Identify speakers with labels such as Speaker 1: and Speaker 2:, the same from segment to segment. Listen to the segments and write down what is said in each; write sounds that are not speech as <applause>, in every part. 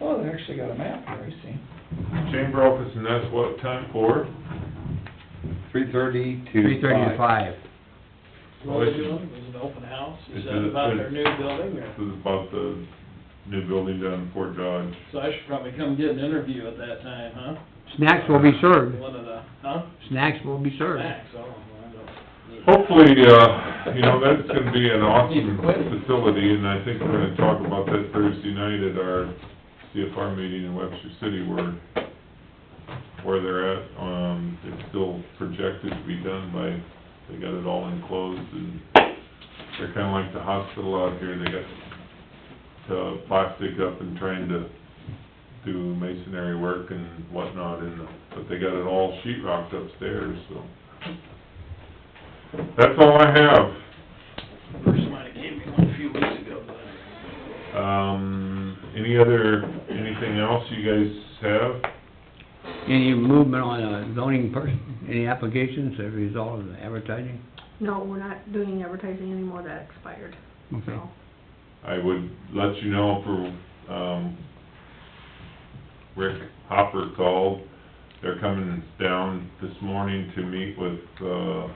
Speaker 1: Oh, they actually got a map there, I see.
Speaker 2: Chamber office, and that's what time, four?
Speaker 3: Three thirty to
Speaker 4: Three thirty to five.
Speaker 2: Well,
Speaker 5: What
Speaker 2: this
Speaker 5: was
Speaker 2: is-
Speaker 5: it, was it open house? Is
Speaker 2: This
Speaker 5: that
Speaker 2: is-
Speaker 5: about their new building or?
Speaker 2: This is about the new building down in Fort Dodge.
Speaker 5: So I should probably come get an interview at that time, huh?
Speaker 4: Snacks will be served,
Speaker 5: One of the, huh?
Speaker 4: snacks will be served.
Speaker 5: Max, oh, I don't need-
Speaker 2: Hopefully, uh, you know, that's gonna be an awesome facility, and I think we're gonna talk about that Thursday night at our CFR meeting in Webster City where, where they're at. Um, it's still projected to be done by, they got it all enclosed, and they're kinda like the hospital out here. They got the plastic up and trying to do masonry work and whatnot, and, but they got it all sheet rocked upstairs, so. That's all I have.
Speaker 5: Person might have gave me one a few weeks ago, but.
Speaker 2: Um, any other, anything else you guys have?
Speaker 4: Any movement on a zoning person, any applications as a result of the advertising?
Speaker 6: No, we're not doing advertising anymore, that expired,
Speaker 4: Okay.
Speaker 6: so.
Speaker 2: I would let you know for, um, Rick Hopper called. They're coming down this morning to meet with, uh,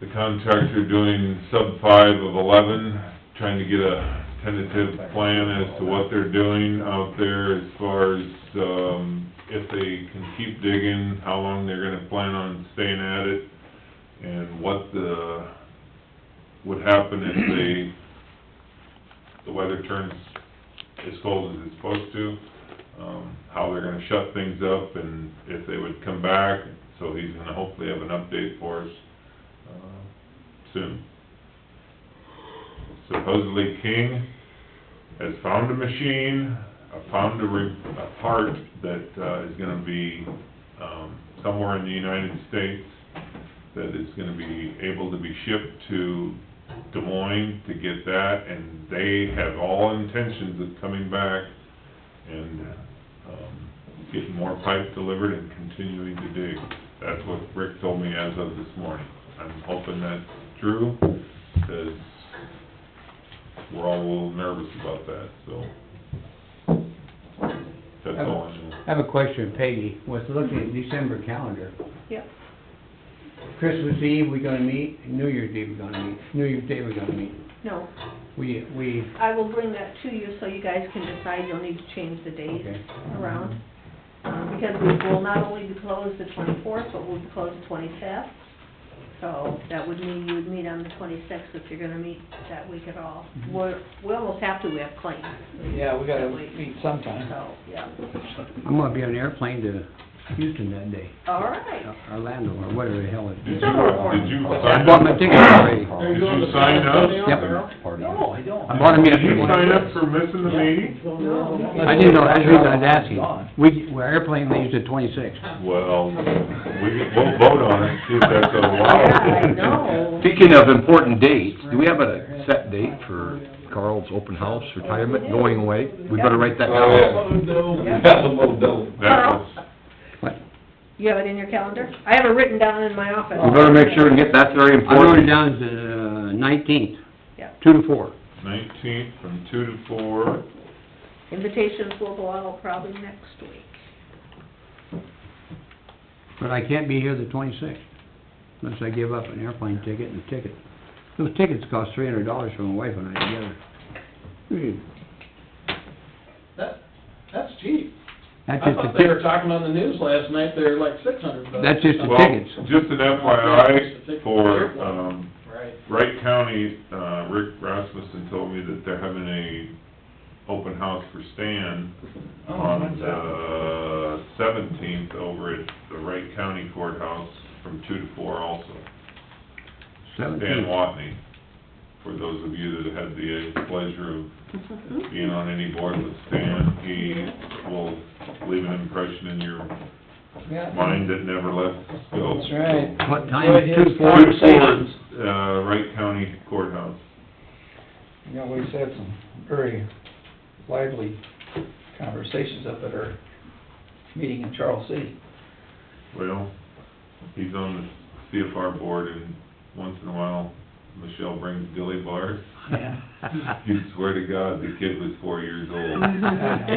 Speaker 2: the contractor doing sub five of eleven, trying to get a tentative plan as to what they're doing out there as far as, um, if they can keep digging, how long they're gonna plan on staying at it, and what the, would happen if they, the weather turns as cold as it's supposed to, um, how they're gonna shut things up, and if they would come back, so he's gonna hopefully have an update for us, uh, soon. Supposedly King has found a machine, uh, found a re, a part that, uh, is gonna be, um, somewhere in the United States that is gonna be able to be shipped to Des Moines to get that, and they have all intentions of coming back and, um, getting more pipe delivered and continuing to dig. That's what Rick told me as of this morning. I'm hoping that's true, because we're all a little nervous about that, so. That's all I know.
Speaker 4: I have a question, Peggy, was looking at December calendar.
Speaker 6: Yep.
Speaker 4: Christmas Eve, we gonna meet, New Year's Eve, we gonna meet, New Year's Day, we gonna meet.
Speaker 6: No,
Speaker 4: We, we,
Speaker 6: I will bring that to you so you guys can decide, you'll need to change the date
Speaker 4: okay,
Speaker 6: around. Um, because we will not only be closed the twenty-fourth, but we'll be closed the twenty-fifth. So that would mean you would meet on the twenty-sixth if you're gonna meet that week at all.
Speaker 3: Mm-hmm.
Speaker 6: We're, we almost have to, we have claims,
Speaker 1: Yeah, we gotta meet sometime.
Speaker 6: so, yeah.
Speaker 4: I'm gonna be on an airplane to Houston that day, uh,
Speaker 6: All
Speaker 3: <laughs>
Speaker 6: right.
Speaker 4: Orlando, or whatever the hell it
Speaker 2: Did you,
Speaker 4: is.
Speaker 2: did you
Speaker 4: I
Speaker 2: sign
Speaker 4: bought my
Speaker 2: up?
Speaker 4: ticket already.
Speaker 5: Are
Speaker 2: Did
Speaker 5: going
Speaker 2: you
Speaker 5: to
Speaker 2: sign
Speaker 5: San
Speaker 2: up?
Speaker 5: Antonio,
Speaker 4: Yep.
Speaker 5: Carol?
Speaker 1: No, I don't.
Speaker 4: I bought him
Speaker 2: Did
Speaker 4: in.
Speaker 2: you sign up for missing the meeting?
Speaker 4: I didn't know, that's the reason I was asking. We, our airplane leaves at twenty-six.
Speaker 2: Well, we, we'll vote on it, see if <laughs> that's
Speaker 6: Yeah, I
Speaker 2: allowed.
Speaker 6: know.
Speaker 3: Speaking of important dates, do we have a set date for Carl's open house, retirement, going away? We better write that down.
Speaker 1: Oh, That's a little dope.
Speaker 2: That was,
Speaker 6: You have it in your calendar? I have it written down in my office.
Speaker 3: We better make sure and get, that's very
Speaker 4: I wrote it
Speaker 3: important.
Speaker 4: down as the uh, nineteenth,
Speaker 6: Yeah.
Speaker 4: two to four.
Speaker 2: nineteenth from two to four.
Speaker 6: Invitations will go out probably next week.
Speaker 4: But I can't be here the twenty-sixth, unless I give up an airplane ticket and a ticket. Those tickets cost three hundred dollars for my wife and I together. Hmm,
Speaker 5: That, that's cheap.
Speaker 4: That's
Speaker 5: I
Speaker 4: just
Speaker 5: thought
Speaker 4: the
Speaker 5: they were
Speaker 4: ticket,
Speaker 5: talking on the news last night, they're like six hundred bucks.
Speaker 4: That's just a
Speaker 2: Well,
Speaker 4: tickets.
Speaker 2: just an FYI for, um,
Speaker 5: Right.
Speaker 2: Wright County, uh, Rick Rasmussen told me that they're having a open house for Stan
Speaker 1: Oh,
Speaker 2: on
Speaker 1: what's that?
Speaker 2: the seventeenth over at the Wright County courthouse from two to four also. Stan
Speaker 4: seventeen.
Speaker 2: Watney, for those of you that had the pleasure of being on any board with Stan, he will leave an impression in your mind that never left us go.
Speaker 1: That's right.
Speaker 4: What
Speaker 1: Go
Speaker 4: time,
Speaker 1: ahead.
Speaker 4: two to four?
Speaker 2: Two Fords, uh, Wright County Courthouse.
Speaker 1: Yeah, we had some very lively conversations up at our meeting in Charles City.
Speaker 2: Well, he's on the CFR board and once in a while, Michelle brings <laughs> dilly bars.
Speaker 1: <laughs> Yeah.
Speaker 5: <laughs>
Speaker 2: You swear to God, the kid was four years old.